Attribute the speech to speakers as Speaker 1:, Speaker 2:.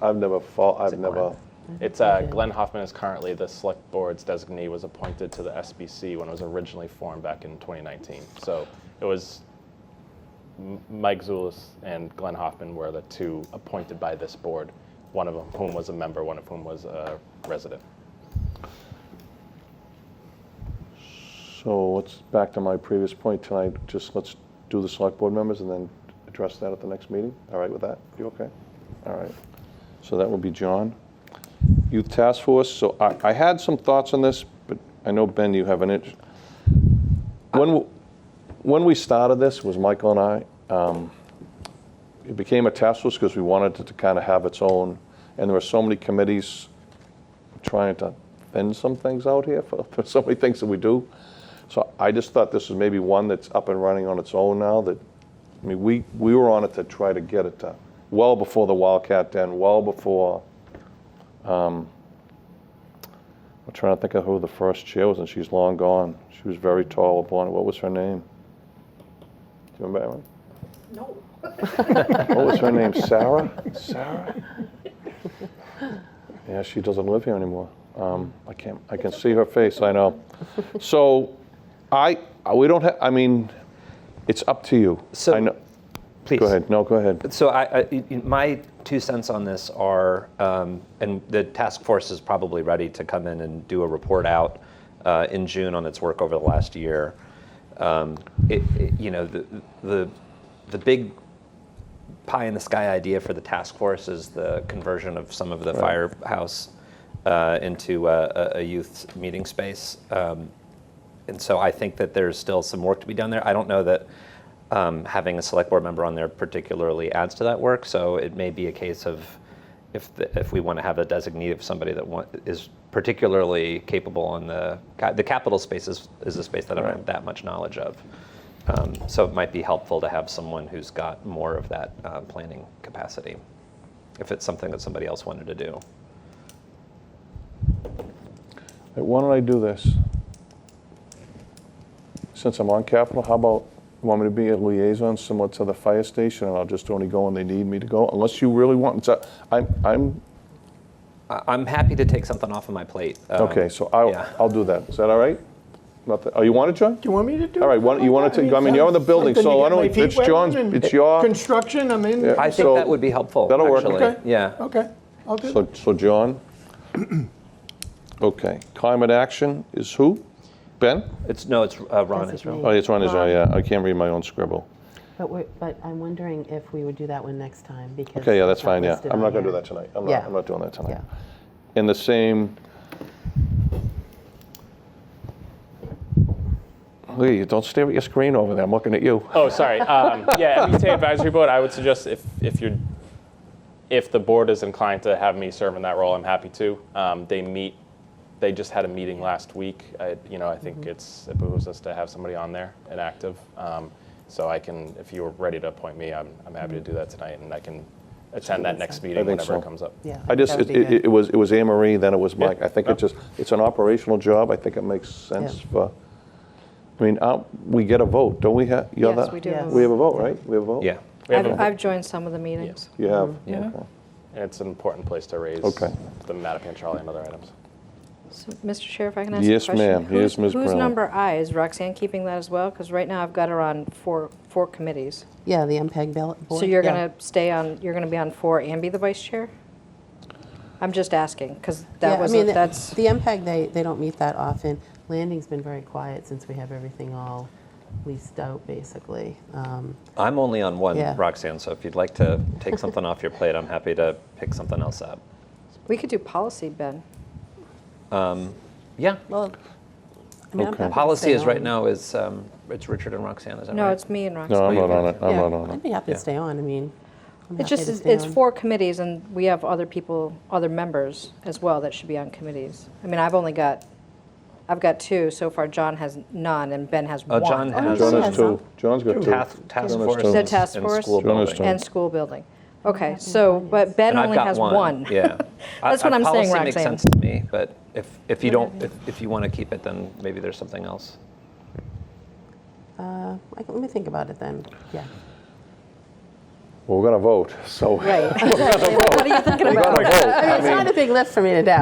Speaker 1: I've never fought, I've
Speaker 2: it
Speaker 1: never,
Speaker 2: Glenn?
Speaker 3: It's uh, Glenn Hoffman is currently the select board's designee. Was appointed to the SBC when it was originally formed back in 2019. So it was M- Mike Zulis and Glenn Hoffman were the two appointed by this board. One of whom was a member, one of whom was a resident.
Speaker 1: so let's, back to my previous point tonight, just let's do the select board members and then address that at the next meeting. All right with that? You okay? All right. So that would be John. Youth Task Force, so I, I had some thoughts on this, but I know, Ben, you have an itch. When, w- when we started this, was Michael and I, um, it became a task force because we wanted it to kind of have its own, and there were so many committees trying to fend some things out here for, for so many things that we do. So I just thought this was maybe one that's up and running on its own now that, I mean, we, we were on it to try to get it to, well before the Wildcat Den, well before, um, I'm trying to think of who the first chair was, and she's long gone. She was very tall, blonde, what was her name? Do you remember? Erin?
Speaker 4: No.
Speaker 1: What was her name? Sarah? Sarah? Yeah, she doesn't live here anymore. Um, I can't, I can see her face, I know. So, I, we don't have, I mean, it's up to you.
Speaker 2: So-
Speaker 1: I know-
Speaker 2: Please.
Speaker 1: Go ahead, no, go ahead.
Speaker 2: So I, I- y- y- my two cents on this are, um, and the task force is probably ready to come in and do a report out uh, in June on its work over the last year. Um, it, it- you know, the, the, the big pie in the sky idea for the task force is the conversion of some of the firehouse uh, into a, a- a youth meeting space. Um, and so I think that there's still some work to be done there. I don't know that um, having a select board member on there particularly adds to that work. So it may be a case of if the, if we want to have a designee of somebody that want, is particularly capable on the ca- the capital space is, is a space that I don't have that much knowledge of. Um, so it might be helpful to have someone who's got more of that uh, planning capacity, if it's something that somebody else wanted to do.
Speaker 1: Why don't I do this? Since I'm on Capitol, how about, you want me to be a liaison similar to the fire station, and I'll just only go when they need me to go, unless you really want, it's a- I'm, I'm,
Speaker 2: I, I'm happy to take something off of my plate. um,
Speaker 1: okay, so I'll,
Speaker 2: yeah.
Speaker 1: I'll do that. Is that all right? Nothing, oh, you want it, John?
Speaker 5: Do you want me to do it?
Speaker 1: All right, why don't- you wanna take- I mean, you're in the building,
Speaker 5: something to
Speaker 1: so why
Speaker 5: get my
Speaker 1: don't we- it's
Speaker 5: feet wet
Speaker 1: John's-
Speaker 5: in and
Speaker 1: it's your-
Speaker 5: Construction, I'm in.
Speaker 2: I think
Speaker 1: So-
Speaker 2: that would be helpful.
Speaker 1: That'll work.
Speaker 2: actually.
Speaker 5: Okay.
Speaker 2: Yeah.
Speaker 5: Okay, I'll do that.
Speaker 1: So, so John? Okay, climate action is who? Ben?
Speaker 2: It's no, it's uh, Ron
Speaker 6: Designate.
Speaker 2: Israel.
Speaker 1: Oh, it's Ron Israel, yeah, I can't read my own scribble.
Speaker 6: But we're, but I'm wondering if we would do that one next time because.
Speaker 1: Okay, yeah, that's
Speaker 6: it's not
Speaker 1: fine, yeah.
Speaker 6: listed
Speaker 1: I'm not
Speaker 6: on
Speaker 1: gonna do
Speaker 6: here.
Speaker 1: that tonight. I'm
Speaker 6: Yeah.
Speaker 1: not, I'm not doing that tonight.
Speaker 6: Yeah.
Speaker 1: In the same. Lee, don't stare at your screen over there, I'm looking at you.
Speaker 3: Oh, sorry. Um, yeah, MBTA advisory board. I would suggest if if you're if the board is inclined to have me serve in that role, I'm happy to. Um, they meet. They just had a meeting last week. I, you know, I think it's it behooves us to have somebody on there and active. Um, so I can, if you were ready to appoint me, I'm, I'm happy to do that tonight, and I can attend that next meeting
Speaker 1: think
Speaker 3: whenever
Speaker 1: so.
Speaker 3: it comes up.
Speaker 6: Yeah.
Speaker 1: I just,
Speaker 6: that would
Speaker 1: it,
Speaker 6: be
Speaker 1: it
Speaker 6: good.
Speaker 1: it was, it was Anne Marie, then it was Mike.
Speaker 3: Yeah.
Speaker 1: I think it just, it's an operational job, I think it makes sense
Speaker 6: Yeah.
Speaker 1: for, I mean, uh, we get a vote, don't we have?
Speaker 7: Yes, we do.
Speaker 6: Yes.
Speaker 1: We have a vote, right? We have a vote?
Speaker 2: Yeah. Mm-hmm.
Speaker 3: We have
Speaker 7: I've,
Speaker 3: a-
Speaker 7: I've joined some of the meetings.
Speaker 1: You have?
Speaker 2: Yeah.
Speaker 1: Okay.
Speaker 3: and it's an important place to raise
Speaker 1: Okay.
Speaker 3: the Mattapan Charlie and other items.
Speaker 7: So, Mr. Chair, if I can ask a
Speaker 1: Yes,
Speaker 7: question?
Speaker 1: ma'am. Yes,
Speaker 7: Who's-
Speaker 1: Ms.
Speaker 7: Who's
Speaker 1: Brown.
Speaker 7: number I? Is Roxanne keeping that as well? Because right now I've got her on four, four committees.
Speaker 6: Yeah, the MPEG ballot board.
Speaker 7: So you're
Speaker 6: Yeah.
Speaker 7: going to stay on, you're going to be on four and be the vice chair? I'm just asking, because
Speaker 6: Yeah,
Speaker 7: that
Speaker 6: I
Speaker 7: was,
Speaker 6: mean,
Speaker 7: a-
Speaker 6: the-
Speaker 7: that's,
Speaker 6: The MPEG, they, they don't meet that often. Landing's been very quiet since we have everything all leased out, basically. Um,
Speaker 2: I'm only on one,
Speaker 6: Yeah.
Speaker 2: Roxanne. So if you'd like to take something off your plate, I'm happy to pick something else up.
Speaker 7: we could do policy, Ben.
Speaker 2: Yeah.
Speaker 6: Well, I mean, I'm
Speaker 1: Okay.
Speaker 6: happy to
Speaker 2: Policy
Speaker 6: stay
Speaker 2: is right
Speaker 6: on.
Speaker 2: now is um, it's Richard and Roxanne, is that
Speaker 7: No,
Speaker 2: right?
Speaker 7: it's me and
Speaker 1: No,
Speaker 7: Roxanne.
Speaker 1: I'm
Speaker 2: you
Speaker 1: not on
Speaker 2: have
Speaker 1: it, I'm
Speaker 6: Yeah,
Speaker 1: not on
Speaker 6: I'd
Speaker 1: it.
Speaker 6: be happy
Speaker 2: Yeah.
Speaker 6: to stay on, I mean. I'm happy
Speaker 7: It's just,
Speaker 6: to
Speaker 7: it's
Speaker 6: stay
Speaker 7: it's
Speaker 6: on.
Speaker 7: four committees, and we have other people, other members as well that should be on committees. I mean, I've only got, I've got two. So far, John has none, and Ben has
Speaker 2: Uh,
Speaker 7: one.
Speaker 2: John has
Speaker 1: John
Speaker 6: Jonas
Speaker 1: has two, John's got two.
Speaker 2: task, task
Speaker 1: Jonas
Speaker 2: force.
Speaker 1: Jonas.
Speaker 7: The task
Speaker 2: and
Speaker 7: force.
Speaker 2: School
Speaker 1: Jonas
Speaker 2: building.
Speaker 1: Jonas.
Speaker 7: And school building. Okay, so, but Ben
Speaker 2: And I've
Speaker 7: only
Speaker 2: got
Speaker 7: has one.
Speaker 2: Yeah. I-
Speaker 7: That's what
Speaker 2: I-
Speaker 7: I'm saying,
Speaker 2: Policy makes
Speaker 7: Roxanne.
Speaker 2: sense to me, but if, if you don't, if, if you want to keep it, then maybe there's something else.
Speaker 6: Like, Let me think about it then, yeah.
Speaker 1: Well, we're going to vote, so.
Speaker 7: Right, exactly. What are you thinking
Speaker 1: We're
Speaker 7: about?
Speaker 1: going to vote.
Speaker 6: I mean, it's not a big lift for me to do.